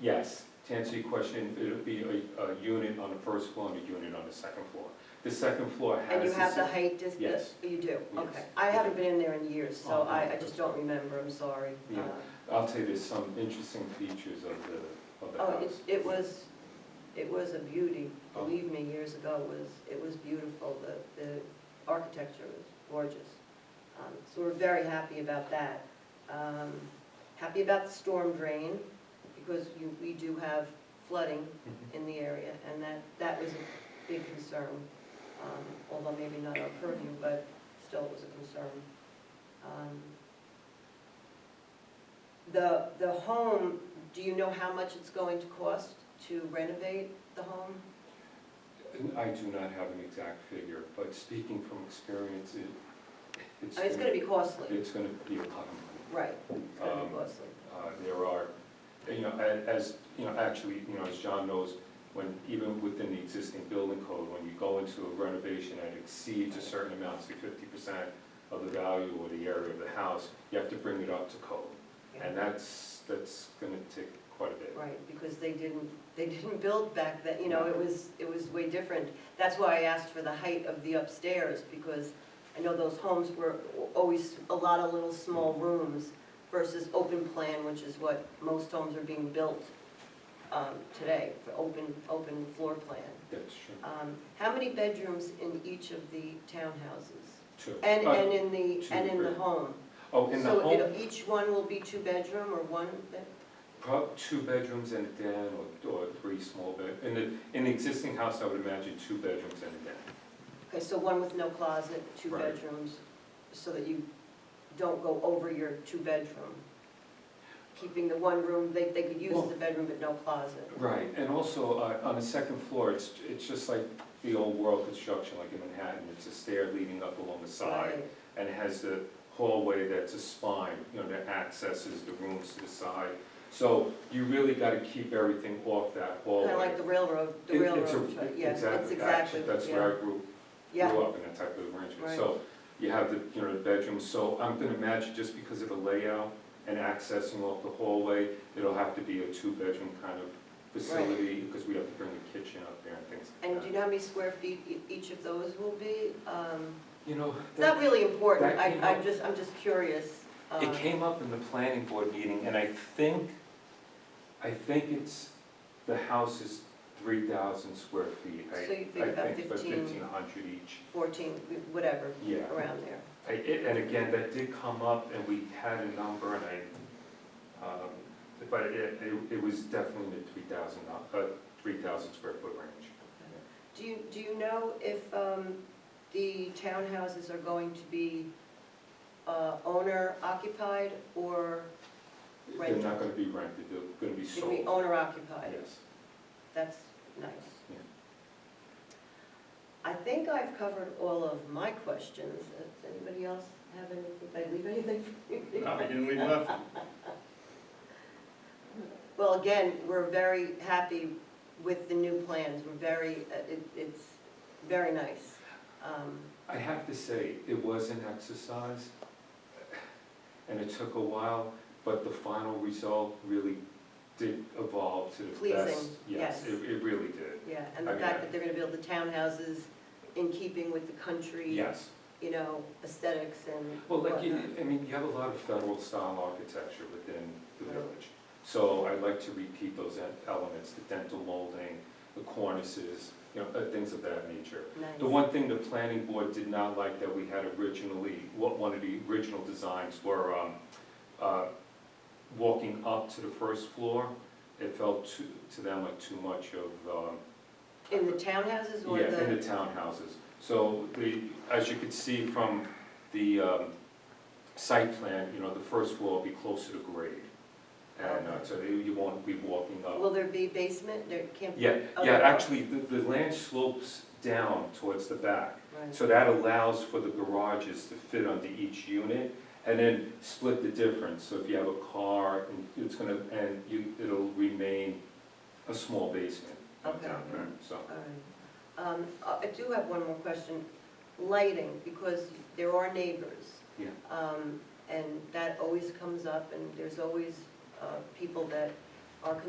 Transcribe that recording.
Yes, to answer your question, it'll be a, a unit on the first floor and a unit on the second floor. The second floor has. And you the have the se- height distance? Yes. You do, Yes. okay. I haven't been in there in years, so Oh, I, I okay. just don't remember, I'm sorry. Yeah. Uh, I'll tell you, there's some interesting features of the, of the Oh, it, house. it was, it was a beauty, Oh. believe me, years ago, it was, it was beautiful, the, the architecture was gorgeous. Um, So we're very happy about that. Um, Happy about the storm drain, because you, we do have flooding Mhm. in the area, and that, that was a big concern, um, although maybe not our purview, but still it was a concern. Um, The, the home, do you know how much it's going to cost to renovate the home? I do not have an exact figure, but speaking from experience, it, it's. I mean, it's gonna be costly, It's gonna be a lot of money. right, it's gonna be Um, costly. Uh, There are, you know, a- as, you know, actually, you know, as John knows, when, even within the existing building code, when you go into a renovation and exceeds a certain amount, say fifty percent of the value or the area of the house, you have to bring it up to code. And that's, that's gonna take quite a bit. Right, because they didn't, they didn't build back then, you know, it was, it was way different. That's why I asked for the height of the upstairs, because I know those homes were always a lot of little small Mm. rooms versus open plan, which is what most homes are being built um, today, for open, open floor plan. That's true. Um, How many bedrooms in each of the townhouses? Two. And, Uh, and in the, two, and in the three. home? Oh, in the So home, it'll- each one will be two-bedroom or one, bed- prob, two bedrooms and a den, or, or three small bed, in the, in the existing house, I would imagine two bedrooms and a den. Okay, so one with no closet, two Right. bedrooms, so that you don't go over your two-bedroom. Keeping the one room, they, they could use Well- the bedroom but no closet. Right, and also, uh, on the second floor, it's, it's just like the old world construction, like in Manhattan, it's a stair leading up along the side, Right. and it has the hallway that's a spine, you know, that accesses the rooms to the side. So you really gotta keep everything off that hallway. Kinda like the railroad, the It- it's a- railroad, tra- yeah, it's exactly, exactly, actually, That's yeah. where I grew, Yeah, grew up in that type of arrangement. Right. So you have the, you know, the bedroom, so I'm gonna imagine just because of the layout and accessing off the hallway, it'll have to be a two-bedroom kind of facility, because we have to bring a kitchen up there and things and like do that. you know how many square feet e- each of those will be? Um, You know, It's that- not really important, that I, came I'm up- just, I'm just curious. it um, came up in the planning board meeting, and I think, I think it's, the house is three thousand square feet. I- So you think about I think about 15. fifteen hundred each, Fourteen, whatever, yeah. around there. I- it- And again, that did come up, and we had a number, and I, um, but it, it- it was definitely in the 3,000, uh, 3,000 square foot range. Do you, do you know if um, the townhouses are going to be uh, owner occupied or They're not Rented. gonna be rented, they're gonna be should be sold, owner occupied? yes. That's nice. Yeah. I think I've covered all of my questions. Does anybody else have anything, did I leave anything? for you? No, we didn't leave nothing. Well, again, we're very happy with the new plans. We're very, uh, it- it's very nice. Um, I have to say, it was an exercise, and it took a while, but the final result really did evolve to the best. Pleasing, yes. It, it really did, Yeah, and the I mean, I- fact that they're gonna build the townhouses in keeping with the country. yes. You know, aesthetics and Well, like, you- whatnot. I mean, you have a lot of federal style architecture within the village. So I'd like to repeat those en- elements, the dental molding, the cornices, you know, uh, things of that nature. Nice. The one thing the planning board did not like that we had originally, what one of the original designs were, um, uh, walking up to the first floor, it felt to, to them like too much of, um, In the townhouses or yeah, in the, the townhouses. So the, as you could see from the um, site plan, you know, the first floor will be closer to grade. And uh, so you you won't be walking up. will there be basement? There can't be? Yeah, oh, yeah, there- actually, the, the land slopes down towards the back. Right. So that allows for the garages to fit onto each unit and then split the difference. So if you have a car, and it's gonna, and you, it'll remain a small basement uh, Okay. down there, so. All right. Um, I I do have one more question. Lighting, because there are neighbors. Yeah. Um, And that always comes up, and there's always uh, people that are concerned